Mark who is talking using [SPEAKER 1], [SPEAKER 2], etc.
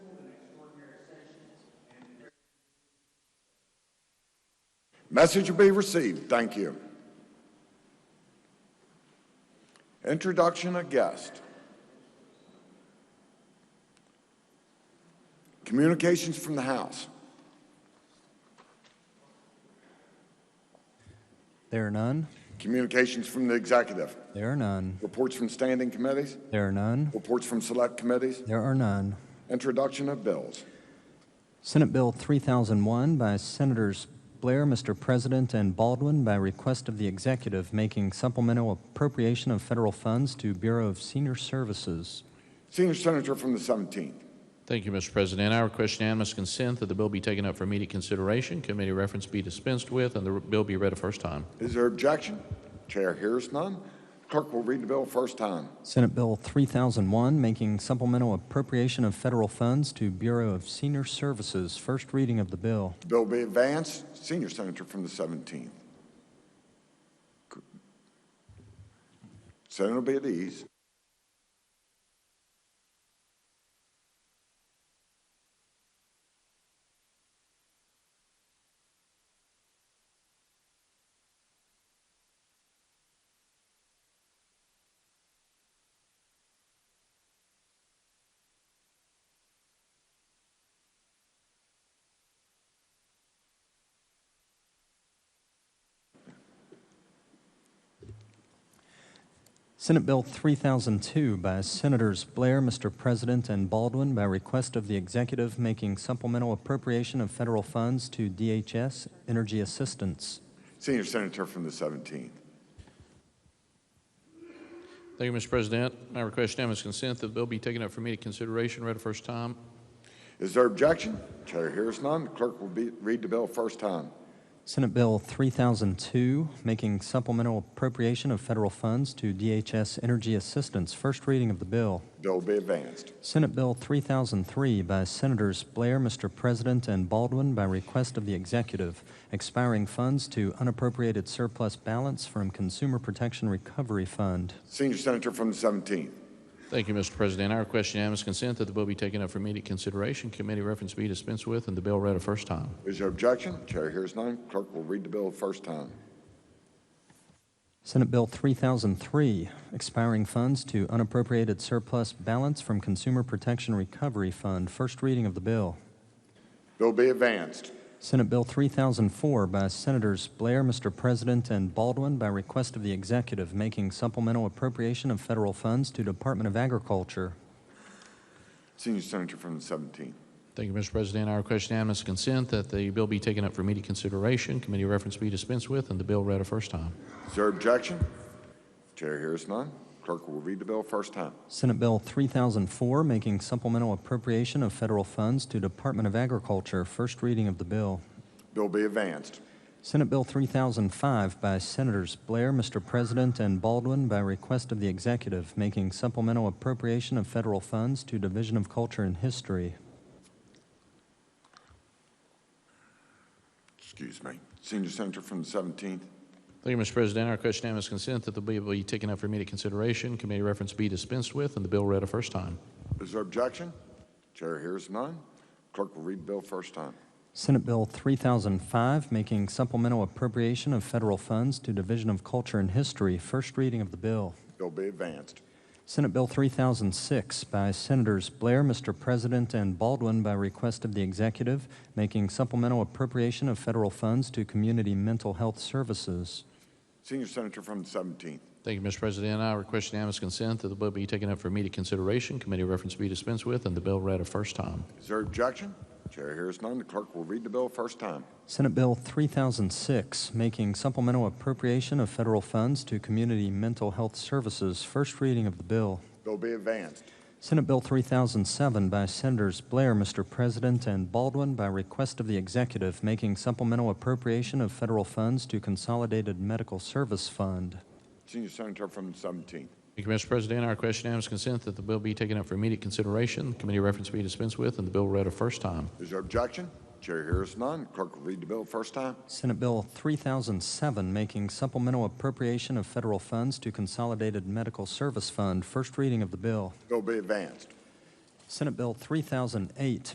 [SPEAKER 1] Message will be received. Thank you. Introduction of guest. Communications from the House.
[SPEAKER 2] There are none.
[SPEAKER 1] Communications from the Executive.
[SPEAKER 2] There are none.
[SPEAKER 1] Reports from standing committees.
[SPEAKER 2] There are none.
[SPEAKER 1] Reports from select committees.
[SPEAKER 2] There are none.
[SPEAKER 1] Introduction of bills.
[SPEAKER 2] Senate Bill 3001 by Senators Blair, Mr. President, and Baldwin by request of the executive making supplemental appropriation of federal funds to Bureau of Senior Services.
[SPEAKER 1] Senior Senator from the 17th.
[SPEAKER 3] Thank you, Mr. President. I request unanimous consent that the bill be taken up for immediate consideration, committee reference be dispensed with, and the bill be read a first time.
[SPEAKER 1] Is there objection? Chair hears none. Clerk will read the bill first time.
[SPEAKER 2] Senate Bill 3001 making supplemental appropriation of federal funds to Bureau of Senior Services. First reading of the bill.
[SPEAKER 1] The bill be advanced. Senior Senator from the 17th. Senator be at ease.
[SPEAKER 2] Senate Bill 3002 by Senators Blair, Mr. President, and Baldwin by request of the executive making supplemental appropriation of federal funds to DHS Energy Assistance.
[SPEAKER 1] Senior Senator from the 17th.
[SPEAKER 3] Thank you, Mr. President. I request unanimous consent that the bill be taken up for immediate consideration, read a first time.
[SPEAKER 1] Is there objection? Chair hears none. Clerk will be, read the bill first time.
[SPEAKER 2] Senate Bill 3002 making supplemental appropriation of federal funds to DHS Energy Assistance. First reading of the bill.
[SPEAKER 1] Bill be advanced.
[SPEAKER 2] Senate Bill 3003 by Senators Blair, Mr. President, and Baldwin by request of the executive, expiring funds to unappropriated surplus balance from Consumer Protection Recovery Fund.
[SPEAKER 1] Senior Senator from the 17th.
[SPEAKER 3] Thank you, Mr. President. I request unanimous consent that the bill be taken up for immediate consideration, committee reference be dispensed with, and the bill read a first time.
[SPEAKER 1] Is there objection? Chair hears none. Clerk will read the bill first time.
[SPEAKER 2] Senate Bill 3003, expiring funds to unappropriated surplus balance from Consumer Protection Recovery Fund. First reading of the bill.
[SPEAKER 1] Bill be advanced.
[SPEAKER 2] Senate Bill 3004 by Senators Blair, Mr. President, and Baldwin by request of the executive making supplemental appropriation of federal funds to Department of Agriculture.
[SPEAKER 1] Senior Senator from the 17th.
[SPEAKER 3] Thank you, Mr. President. I request unanimous consent that the bill be taken up for immediate consideration, committee reference be dispensed with, and the bill read a first time.
[SPEAKER 1] Is there objection? Chair hears none. Clerk will read the bill first time.
[SPEAKER 2] Senate Bill 3004 making supplemental appropriation of federal funds to Department of Agriculture. First reading of the bill.
[SPEAKER 1] Bill be advanced.
[SPEAKER 2] Senate Bill 3005 by Senators Blair, Mr. President, and Baldwin by request of the executive making supplemental appropriation of federal funds to Division of Culture and History.
[SPEAKER 1] Excuse me. Senior Senator from the 17th.
[SPEAKER 3] Thank you, Mr. President. Our question unanimous consent that the bill be taken up for immediate consideration, committee reference be dispensed with, and the bill read a first time.
[SPEAKER 1] Is there objection? Chair hears none. Clerk will read the bill first time.
[SPEAKER 2] Senate Bill 3005 making supplemental appropriation of federal funds to Division of Culture and History. First reading of the bill.
[SPEAKER 1] Bill be advanced.
[SPEAKER 2] Senate Bill 3006 by Senators Blair, Mr. President, and Baldwin by request of the executive making supplemental appropriation of federal funds to community mental health services.
[SPEAKER 1] Senior Senator from the 17th.
[SPEAKER 3] Thank you, Mr. President. I request unanimous consent that the bill be taken up for immediate consideration, committee reference be dispensed with, and the bill read a first time.
[SPEAKER 1] Is there objection? Chair hears none. The clerk will read the bill first time.
[SPEAKER 2] Senate Bill 3006 making supplemental appropriation of federal funds to community mental health services. First reading of the bill.
[SPEAKER 1] Bill be advanced.
[SPEAKER 2] Senate Bill 3007 by Senators Blair, Mr. President, and Baldwin by request of the executive making supplemental appropriation of federal funds to Consolidated Medical Service Fund.
[SPEAKER 1] Senior Senator from the 17th.
[SPEAKER 3] Thank you, Mr. President. I request unanimous consent that the bill be taken up for immediate consideration, committee reference be dispensed with, and the bill read a first time.
[SPEAKER 1] Is there objection? Chair hears none. Clerk will read the bill first time.
[SPEAKER 2] Senate Bill 3007 making supplemental appropriation of federal funds to Consolidated Medical Service Fund. First reading of the bill.
[SPEAKER 1] Bill be advanced.
[SPEAKER 2] Senate Bill 3008